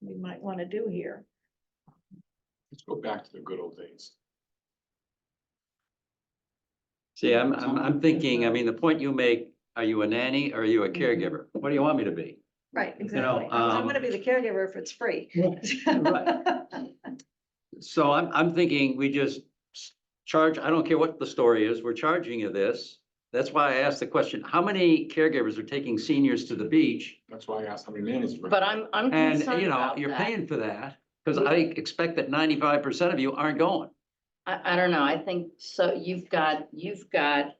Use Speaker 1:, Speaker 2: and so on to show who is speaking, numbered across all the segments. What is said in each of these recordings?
Speaker 1: we might want to do here.
Speaker 2: Let's go back to the good old days.
Speaker 3: See, I'm, I'm, I'm thinking, I mean, the point you make, are you a nanny or are you a
Speaker 4: Mm-hmm.
Speaker 3: caregiver? What do you want me to be?
Speaker 1: Right,
Speaker 3: know,
Speaker 1: exactly. I'm gonna
Speaker 3: um,
Speaker 1: be the caregiver if it's free.
Speaker 3: Right. So I'm, I'm thinking we just s- charge, I don't care what the story is, we're charging you this. That's why I asked the question, how many caregivers are taking seniors to the beach?
Speaker 2: That's why I asked how many nannies. were-
Speaker 4: But I'm, I'm
Speaker 3: And,
Speaker 4: concerned
Speaker 3: you know,
Speaker 4: about
Speaker 3: you're
Speaker 4: that.
Speaker 3: paying for that, because I expect that ninety-five percent of you aren't going.
Speaker 4: I, I don't know, I think, so you've got, you've got,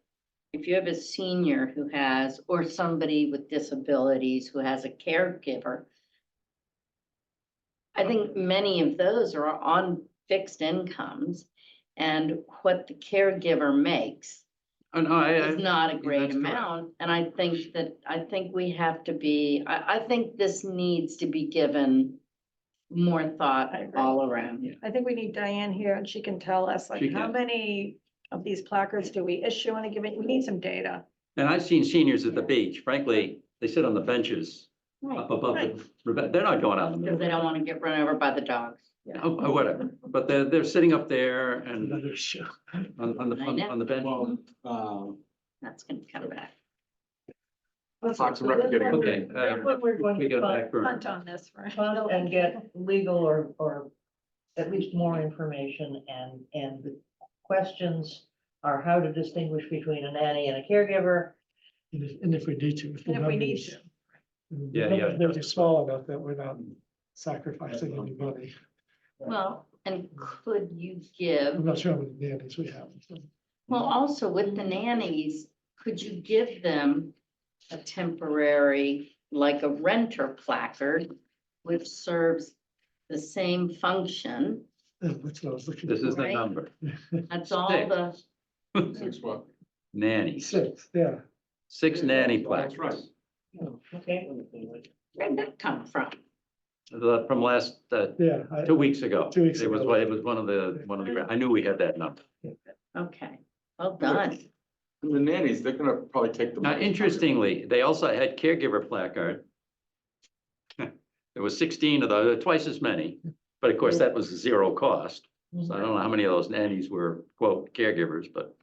Speaker 4: if you have a senior who has, or somebody with disabilities who has a caregiver, I think many of those are on fixed incomes, and what the caregiver makes
Speaker 3: Oh, no, I,
Speaker 4: is
Speaker 3: I,
Speaker 4: not a great
Speaker 3: that's correct.
Speaker 4: amount, and I think that, I think we have to be, I, I think this needs to be given more thought
Speaker 1: I agree.
Speaker 4: all around.
Speaker 1: I think we need Diane here and she can tell us like
Speaker 3: She
Speaker 1: how
Speaker 3: can.
Speaker 1: many of these placards do we issue on a given, we need some data.
Speaker 3: and I've seen seniors at the beach, frankly, they sit on the benches up above, the rebe- they're not going out in the middle.
Speaker 4: Because they don't want to get run over by the dogs.
Speaker 3: Oh, oh, whatever, but they're, they're sitting up there and
Speaker 5: Another show.
Speaker 3: on, on the, on on the bench.
Speaker 2: Well, um,
Speaker 4: That's gonna come back.
Speaker 2: Fox and Rec are getting.
Speaker 3: Okay,
Speaker 2: there.
Speaker 3: uh,
Speaker 6: What we're going
Speaker 3: we
Speaker 6: to
Speaker 3: go
Speaker 6: find,
Speaker 3: back for,
Speaker 1: Hunt on this, right?
Speaker 6: find and get legal or, or at least more information and, and the questions are how to distinguish between a nanny and a caregiver.
Speaker 5: And if, and if we need to.
Speaker 1: And if we need to.
Speaker 3: Yeah, yeah.
Speaker 5: Those are small enough that we're not sacrificing anybody.
Speaker 4: Well, and could you
Speaker 5: I'm
Speaker 4: give,
Speaker 5: not sure how many nannies we have.
Speaker 4: well, also with the nannies, could you give them a temporary, like a renter placard, which serves the same function?
Speaker 5: That's what I was looking.
Speaker 3: this is
Speaker 5: for.
Speaker 3: the
Speaker 4: Right.
Speaker 3: number,
Speaker 4: That's all
Speaker 3: Stick.
Speaker 4: the,
Speaker 2: Six what?
Speaker 3: nannies,
Speaker 5: Six, yeah.
Speaker 3: six nanny
Speaker 2: That's right.
Speaker 3: placards.
Speaker 6: Okay.
Speaker 4: where'd that come from?
Speaker 3: The- From last, uh,
Speaker 5: Yeah, I,
Speaker 3: two weeks ago.
Speaker 5: Two weeks
Speaker 3: It was,
Speaker 5: ago.
Speaker 3: it was one of the, one of the, gra- I knew we had that number.
Speaker 4: Okay, well done.
Speaker 2: And the nannies, they're gonna probably take the.
Speaker 3: Now, interestingly, they also had caregiver placard. There was sixteen of those, twice as many, but of course, that was zero cost. So I don't know how many of those nannies were quote caregivers, but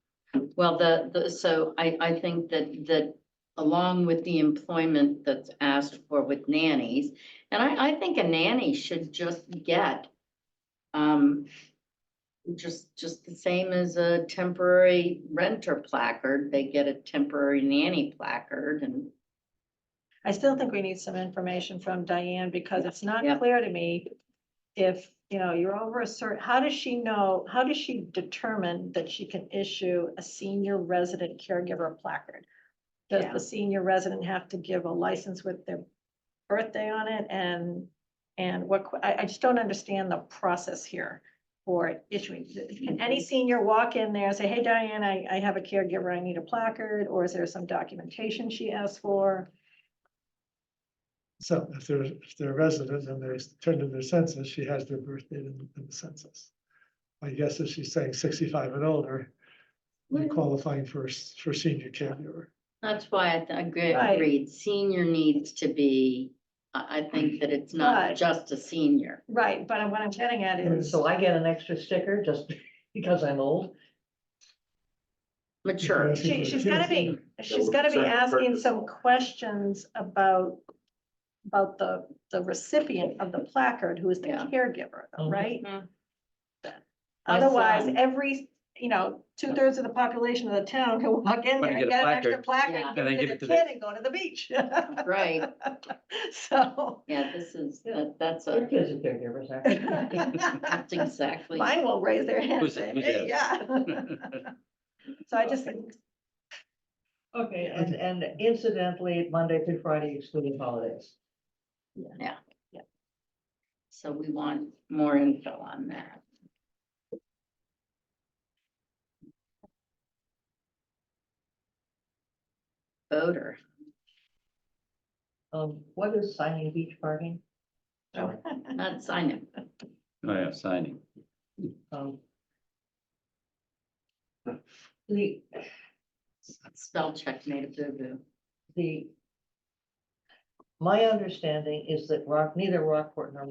Speaker 4: Well, the, the, so I, I think that, that along with the employment that's asked for with nannies, and I, I think a nanny should just get, um, just, just the same as a temporary renter placard, they get a temporary nanny placard and,
Speaker 1: I still think we need some information from Diane because it's not
Speaker 4: Yeah.
Speaker 1: clear to me if, you know, you're over a certain, how does she know, how does she determine that she can issue a senior resident caregiver placard? Does
Speaker 4: Yeah.
Speaker 1: the senior resident have to give a license with their birthday on it and, and what, que- I, I just don't understand the process here for issuing. Can
Speaker 4: Mm-hmm.
Speaker 1: any senior walk in there and say, hey Diane, I, I have a caregiver, I need a placard, or is there some documentation she asked for?
Speaker 5: so if they're, if they're residents and they're turned in their census, she has their birth date in, in the census. I guess if she's saying sixty-five and older, they're qualifying for, s- for senior caregiver.
Speaker 4: that's why I th- agree-
Speaker 1: Right.
Speaker 4: agreed, senior needs to be, I, I think that it's not
Speaker 1: But-
Speaker 4: just a senior.
Speaker 1: Right, but what I'm getting at
Speaker 6: And
Speaker 1: is,
Speaker 6: so I get an extra sticker just because I'm old.
Speaker 4: Mature,
Speaker 1: she, she's gotta be, she's
Speaker 2: Yeah,
Speaker 1: gotta be
Speaker 2: sorry,
Speaker 1: asking
Speaker 2: purpose.
Speaker 1: some questions about, about the, the recipient of the placard, who is the
Speaker 4: Yeah.
Speaker 1: caregiver, though,
Speaker 6: Mhm.
Speaker 1: right?
Speaker 4: Mhm. My
Speaker 1: Otherwise,
Speaker 6: um,
Speaker 4: son-
Speaker 1: every, you know, two thirds of the population of the town can walk in there
Speaker 3: Wanna
Speaker 1: and
Speaker 3: get a
Speaker 1: get an extra
Speaker 4: Yeah.
Speaker 1: placard,
Speaker 3: And then
Speaker 1: give it to the kid and go to the beach.
Speaker 4: right,
Speaker 1: So.
Speaker 4: yeah, this is, that, that's
Speaker 6: Your
Speaker 4: a.
Speaker 6: kids are caregivers, actually.
Speaker 4: That's
Speaker 1: Mine
Speaker 4: exactly.
Speaker 1: will raise their hand, and
Speaker 3: Who's-
Speaker 1: say,
Speaker 3: who's
Speaker 1: "Hey, yeah. So I just think
Speaker 6: Okay, and, and incidentally, Monday through Friday excluding holidays.
Speaker 4: So we want more info on that. Voter,
Speaker 6: Um, what is signing beach parking?
Speaker 4: not sign it.
Speaker 3: oh yeah, signing.
Speaker 6: Um. The,
Speaker 4: Spell check made a boo boo.
Speaker 6: the. My understanding is that Rock, neither Rockport nor